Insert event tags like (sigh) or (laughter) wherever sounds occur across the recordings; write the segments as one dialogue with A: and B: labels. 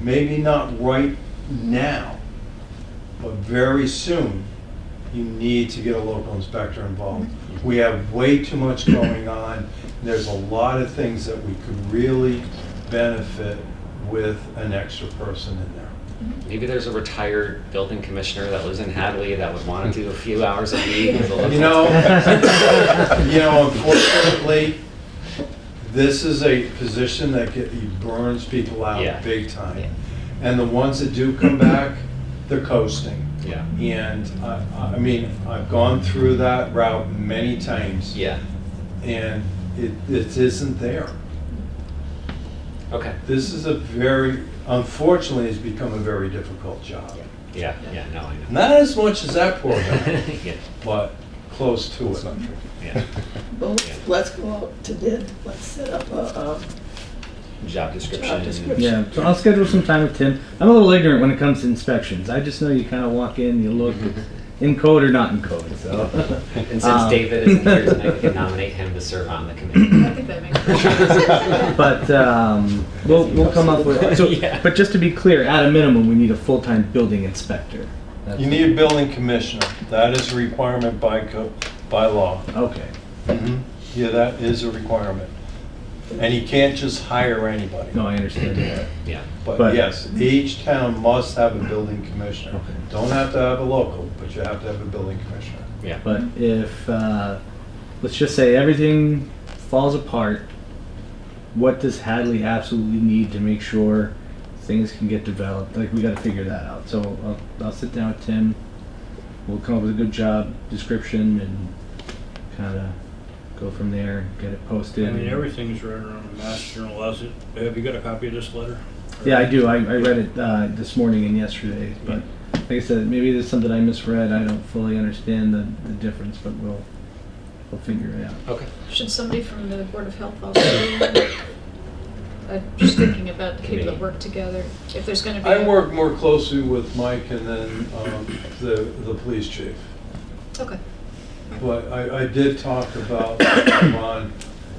A: maybe not right now, but very soon, you need to get a local inspector involved.
B: Mm-hmm.
A: We have way too much going on. There's a lot of things that we could really benefit with an extra person in there.
B: Maybe there's a retired building commissioner that lives in Hadley that would want to do a few hours a week. with a local-
A: You know, (laughs) you know, unfortunately, this is a position that get, it burns people
B: Yeah.
A: out big time. And the ones that do come back, they're coasting.
B: Yeah,
A: And I, I mean, I've gone through that route many times.
B: yeah,
A: And it, it isn't there.
B: okay,
A: This is a very, unfortunately, it's become a very difficult job.
B: yeah, yeah, no, I know.
A: Not as much as that poor guy,
B: (laughs) Yeah,
A: but close to it.
B: yeah,
C: Well, let's- let's go out to bid, let's set up a, um.
B: job description.
C: description.
D: Yeah, so I'll schedule some time with Tim. I'm a little ignorant when it comes to inspections. I just know you kind of walk in, you
B: (laughs)
D: look, it's in code or not in code. So,
B: (laughs) And since
D: Um,
B: David isn't here tonight, we can
D: (laughs)
B: nominate him to serve on the committee.
E: I think that
B: (laughs)
E: makes sense.
D: but
B: uh,
D: um, we'll we'll come up with. So,
B: Yeah.
D: but just to be clear, at a minimum, we need a full time building inspector.
A: (laughs)
D: That's-
A: You need a building commissioner. That is a requirement by co, by law.
D: Okay.
B: Mm-hmm.
A: Yeah, that is a requirement. And you can't just hire anybody.
D: No, I understand. that.
B: Yeah,
A: But
D: But-
A: yes, each town must have a building commissioner.
D: Okay.
A: Don't have to have a local, but you have to have a building commissioner.
B: yeah.
D: But if uh, let's just say everything falls apart, what does Hadley absolutely need to make sure things can get developed? Like we got to figure that out. So I'll, I'll sit down with Tim. We'll come up with a good job description and kind of go from there. Get it posted.
F: I mean,
D: and-
F: everything's right around the Mass General, has it, have you got a copy of this letter?
D: Yeah, I do. I, I read it uh, this morning and yesterday, but like I said, maybe there's something I misread. I don't fully understand the, the difference, but we'll we'll figure it out.
B: Okay.
E: Should somebody from the Board of Health also? be in? I'm just thinking about the people that work together, if there's gonna be.
A: I
E: a-
A: work more closely with Mike and then um, the, the police chief.
E: Okay,
A: But I, I did talk about (coughs) on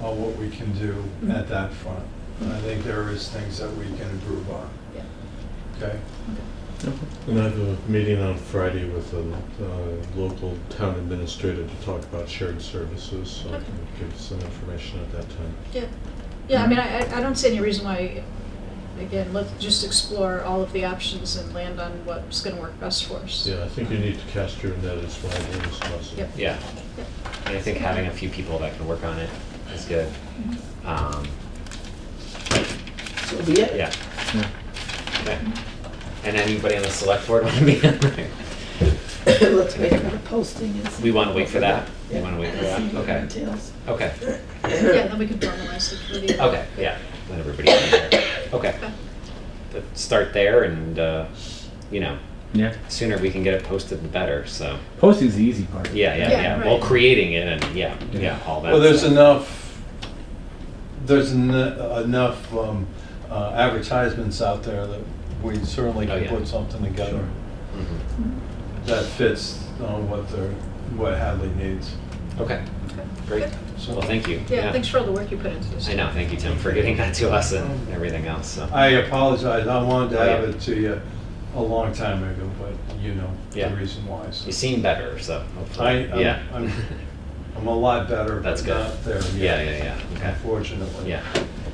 A: uh, what we can do
E: Mm-hmm.
A: at that front. And I think there is things that we can improve on,
E: yeah.
A: okay?
G: And I have a meeting on Friday with a uh, local town administrator to talk about shared services, so I
E: Okay.
G: can give some information at that time.
E: Yeah, yeah, I mean, I, I- I don't see any reason why, again, let's just explore all of the options and land on what's gonna work best for us.
G: Yeah, I think you need to cast your net as widely as possible.
E: Yep.
B: Yeah,
E: Yep.
B: and I think having a few people that can work on it is good. Um,
C: so be it.
B: yeah,
D: Yeah.
B: okay. And anybody on the select board want to be on there?
C: (laughs) Let's wait for the posting and see.
B: We wanna wait for that? We
C: Yeah.
B: wanna wait for that?
C: See what
B: Okay. Oh.
C: entails.
B: Okay,
E: Yeah, then we can formalize the committee.
B: okay, yeah, let everybody be there. Okay,
E: Okay.
B: Let's start there and, uh, you know,
D: Yeah.
B: sooner we can get it posted the better, so,
D: Posting's the easy part.
B: yeah, yeah,
E: Yeah,
B: yeah. Well,
E: right.
B: creating it and, yeah, yeah, all that.
A: Well, there's
B: stuff.
A: enough, there's en- enough um, uh, advertisements out there that we certainly
B: Oh,
A: can
B: yeah.
A: put something together
B: Mhm.
A: that fits uh, what they're, what Hadley needs.
B: Okay, great. Well, thank you.
E: Yeah, thanks for all the work you put into this.
B: I know, thank you, Tim, for getting that to us and everything else, so.
A: I uh, apologize, I wanted to
B: Oh, yeah.
A: have it to you a long time ago, but you know, the
B: Yeah.
A: reason why. so.
B: You seem better, so
A: I,
B: hopefully,
A: I'm-
B: yeah.
A: I'm, I'm a lot better,
B: That's
A: but
B: good.
A: not there
B: Yeah,
A: yet,
B: yeah, yeah, okay.
A: unfortunately.
B: (laughs) Yeah,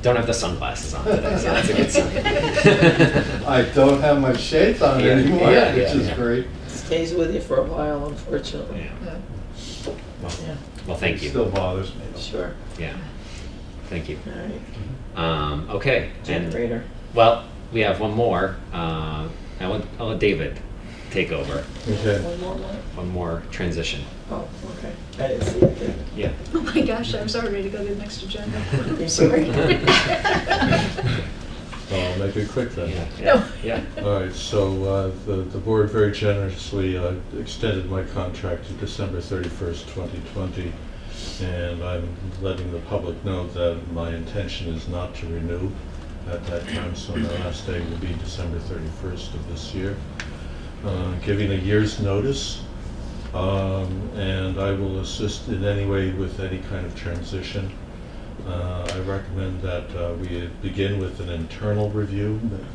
B: don't have the sunglasses on today, so that's a good sign.
A: (laughs) I don't have my shades on
B: Yeah,
A: anymore,
B: yeah,
A: which
B: yeah,
A: is
B: yeah.
A: great.
C: Stays with you for a while, unfortunately.
B: Yeah.
E: Yeah.
B: Well,
C: Yeah,
B: Well, thank
A: It Still
B: you.
A: bothers me.
C: sure,
B: Yeah, thank you.
C: all right,
B: Um, okay. and-
C: generator.
B: Well, we have one more. Uh, I want, I'll let David take over.
G: Okay.
C: One more one?
B: One more transition.
C: Oh, okay, I didn't see it there.
B: (laughs) Yeah.
E: Oh my gosh, I was already ready to go to the next agenda. I'm sorry.
G: So I'll make it quick then.
B: Yeah,
E: (laughs) No.
B: yeah,
E: (laughs)
B: yeah.
G: All right, so uh, the the board very generously uh, extended my contract to December 31st, 2020, and I'm letting the public know that my intention is not to renew at that time, so my last day will be December 31st of this year, Uh, giving a year's notice, um, and I will assist in any way with any kind of transition. Uh, I recommend that uh, we begin with an internal review